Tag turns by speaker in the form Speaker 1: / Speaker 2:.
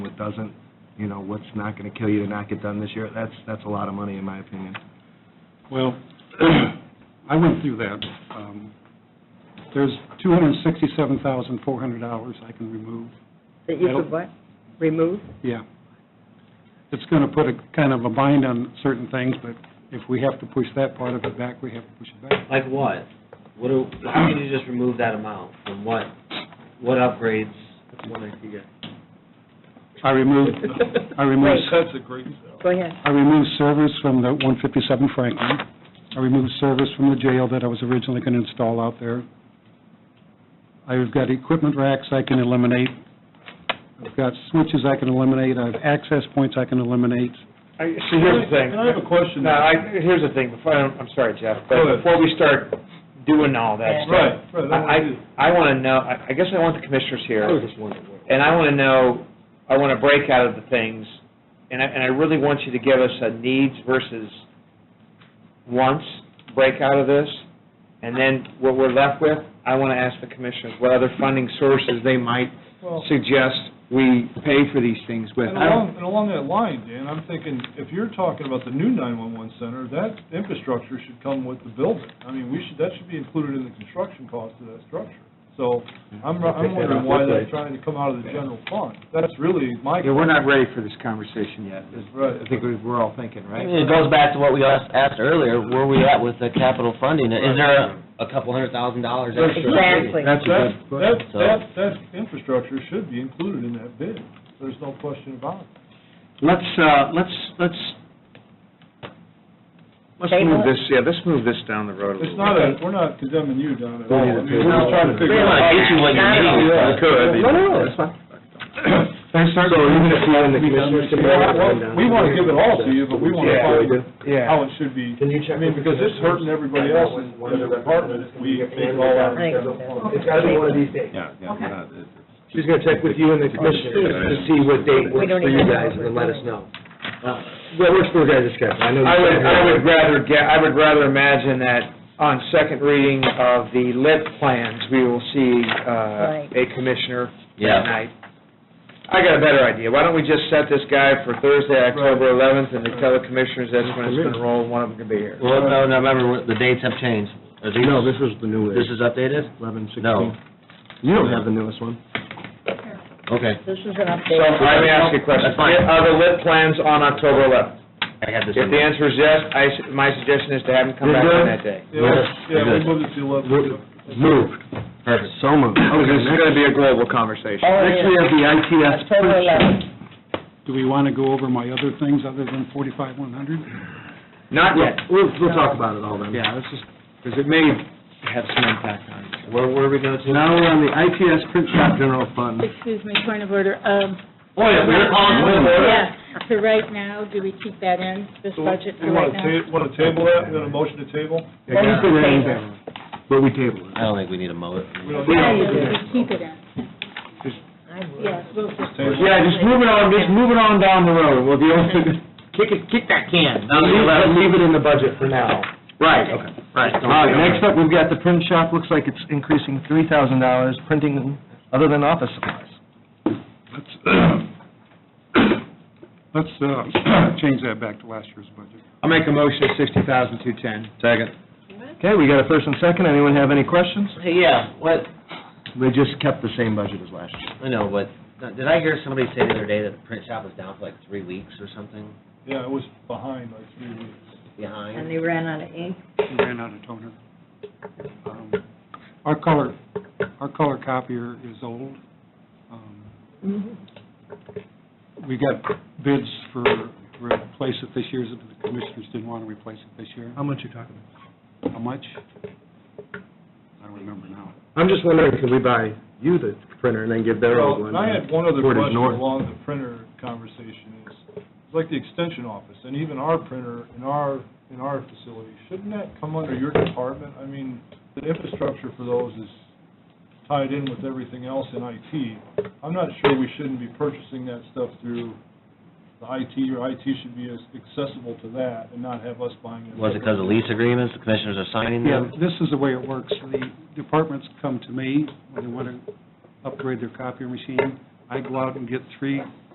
Speaker 1: doesn't, you know, what's not going to kill you to not get done this year, that's, that's a lot of money, in my opinion.
Speaker 2: Well, I went through that. Um, There's $267,400 I can remove.
Speaker 3: That you
Speaker 2: I don't-
Speaker 3: could what? Remove?
Speaker 2: Yeah. It's going to put a kind of a bind on certain things, but if we have to push that part of it back, we have to push it back.
Speaker 4: Like what? What do, how can you just remove that amount from what, what upgrades?
Speaker 2: I removed, I removed,
Speaker 5: That's a great sell.
Speaker 3: Go ahead.
Speaker 2: I removed servers from the 157 Franklin. I removed servers from the jail that I was originally going to install out there. I've got equipment racks I can eliminate. I've got switches I can eliminate. I've access points I can eliminate.
Speaker 6: See, here's the thing.
Speaker 5: And I have a question.
Speaker 6: No, I, here's the thing, before, I'm I'm sorry, Jeff,
Speaker 5: Go
Speaker 6: but
Speaker 5: ahead.
Speaker 6: before we start doing all that stuff,
Speaker 5: Right, right, I
Speaker 6: I,
Speaker 5: wanna
Speaker 6: I I want
Speaker 5: do-
Speaker 6: to know, I I guess I want the commissioners here, and I want to know, I want to break out of the things, and I, and I really want you to give us a needs versus wants breakout of this, and then what we're left with, I want to ask the commissioners what other funding sources they might
Speaker 5: Well-
Speaker 6: suggest we pay for these things with.
Speaker 5: And along, and along that line, Dan, I'm thinking, if you're talking about the new nine-one-one center, that infrastructure should come with the building. I mean, we should, that should be included in the construction cost of that structure. So, I'm, I'm wondering why that's trying to come out of the general fund. That's really my.
Speaker 6: Yeah, we're not ready for this conversation yet, is-
Speaker 5: Right.
Speaker 6: I think we're all thinking,
Speaker 7: I
Speaker 6: right?
Speaker 7: mean, It goes back to what we asked asked earlier, where we at with the capital funding? Is there a- a couple hundred thousand dollars extra?
Speaker 3: Exactly.
Speaker 6: That's a
Speaker 5: That,
Speaker 6: good
Speaker 5: that,
Speaker 6: question.
Speaker 7: So-
Speaker 5: that, that infrastructure should be included in that bid. There's no question about it.
Speaker 6: Let's, uh, let's, let's, let's
Speaker 3: Table
Speaker 6: move
Speaker 3: it?
Speaker 6: this, yeah, let's move this down the road a
Speaker 5: It's
Speaker 6: little
Speaker 5: not
Speaker 6: bit.
Speaker 5: a, we're not condemning you, Don, at all. I mean,
Speaker 6: No.
Speaker 5: we're just trying to figure
Speaker 7: We
Speaker 5: out.
Speaker 7: want to get you what you need.
Speaker 6: Yeah, could.
Speaker 7: No, no,
Speaker 6: that's fine. So even if you and the commissioners can
Speaker 5: Well, well, We want to give it all to you, but we want to
Speaker 6: Yeah.
Speaker 5: find
Speaker 6: Yeah.
Speaker 1: Oh.
Speaker 5: how it should be. I mean, because it's hurting everybody else in the department if we take it all
Speaker 3: I
Speaker 5: out.
Speaker 3: think
Speaker 5: It's
Speaker 3: gotta be one of
Speaker 6: these days.
Speaker 1: Yeah, yeah, we're not- it's-
Speaker 6: She's gonna check with you and the commissioners to see what date
Speaker 3: We don't even know what we're doing.
Speaker 6: know.
Speaker 1: Uh,
Speaker 6: Well, we're still gonna discuss. I know. I would, I would rather, ga- I would rather imagine that on second reading of the lit plans, we will see,
Speaker 3: Right.
Speaker 6: uh, a commissioner
Speaker 7: Yeah.
Speaker 6: that night. I got a better idea. Why don't we just set this guy for Thursday, October eleventh, and we tell the commissioners that's when it's gonna roll, and one of them can be here.
Speaker 7: Well, no, no, remember, what- the dates have changed. No, this was the new. This is updated?
Speaker 1: Eleven, sixteen.
Speaker 7: No,
Speaker 1: You don't have the newest one.
Speaker 7: okay,
Speaker 3: This is an
Speaker 6: So,
Speaker 3: update.
Speaker 6: let me ask you a question.
Speaker 7: That's fine.
Speaker 6: Are the lit plans on October eleventh?
Speaker 7: I have this
Speaker 6: If
Speaker 7: in
Speaker 6: the
Speaker 7: there.
Speaker 6: answer is yes, I, s- my suggestion is to have him come back on that day.
Speaker 5: Yeah, yeah, we
Speaker 7: Good.
Speaker 5: moved it to
Speaker 1: We're-
Speaker 5: eleven.
Speaker 1: Moved.
Speaker 7: Perfect.
Speaker 1: So moved.
Speaker 6: Because
Speaker 1: Okay,
Speaker 6: this is
Speaker 1: next,
Speaker 6: gonna be a global conversation.
Speaker 3: Oh,
Speaker 1: next we
Speaker 3: yeah.
Speaker 1: have the ITS.
Speaker 3: October eleventh.
Speaker 2: Do we want to go over my other things other than 45100?
Speaker 6: Not yet,
Speaker 1: We'll, we'll talk about it all then.
Speaker 6: yeah, let's just, because it may have some impact on us.
Speaker 7: Where, where are we going to?
Speaker 1: Now we're on the ITS Print Shop General Fund.
Speaker 8: Excuse me, point of order. Um,
Speaker 7: Oh, yeah, we were calling.
Speaker 8: Yeah, for right now, do we keep that in, this
Speaker 5: So,
Speaker 8: budget
Speaker 5: we
Speaker 8: for right
Speaker 5: want to
Speaker 8: now?
Speaker 5: ta, want to table that, we got a motion to table?
Speaker 1: Anything or anything. But we table it.
Speaker 7: I don't think we need a mow it.
Speaker 5: We don't
Speaker 8: Yeah,
Speaker 5: need
Speaker 8: yeah,
Speaker 5: to
Speaker 8: yeah,
Speaker 5: do
Speaker 8: we
Speaker 5: that.
Speaker 8: keep it in. Yes, we'll
Speaker 5: Just
Speaker 8: just,
Speaker 5: table it.
Speaker 6: Yeah, just moving on, just moving on down the road, we'll be able to. Kick it, kick that can. Leave it in the budget for now.
Speaker 7: Right, right.
Speaker 1: All right, next up, we've got the print shop, looks like it's increasing three thousand dollars, printing other than office supplies.
Speaker 2: uh, Let's uh, change that back to last year's budget.
Speaker 6: I'll make a motion at sixty thousand two ten. Second.
Speaker 1: Okay, we got a first and second, anyone have any questions?
Speaker 7: Hey, yeah, what,
Speaker 1: They just kept the same budget as last year.
Speaker 7: I know, but, uh, did I hear somebody say the other day that the print shop was down for like three weeks or something
Speaker 5: Yeah, it was behind like three weeks.
Speaker 7: behind?
Speaker 3: And they ran out of ink.
Speaker 2: We ran out of toner. Um, Our color, our color copier is old. Um, We got bids for replace it this year, but the commissioners didn't want to replace it this year.
Speaker 1: How much you talking about?
Speaker 2: How much? I don't remember now.
Speaker 6: I'm just wondering, could we buy you the printer and then give their
Speaker 5: Well, and I had one other
Speaker 1: Portage
Speaker 5: question
Speaker 1: North.
Speaker 5: along the printer conversation is, it's like the extension office, and even our printer in our, in our facility, shouldn't that come under your department? I mean, the infrastructure for those is tied in with everything else in IT. I'm not sure we shouldn't be purchasing that stuff through the IT, or IT should be as accessible to that and not have us buying it.
Speaker 7: Was it because of lease agreements, the commissioners are signing
Speaker 2: Yeah,
Speaker 7: them?
Speaker 2: this is the way it works. The departments come to me when they want to upgrade their copier machine. I go out and get three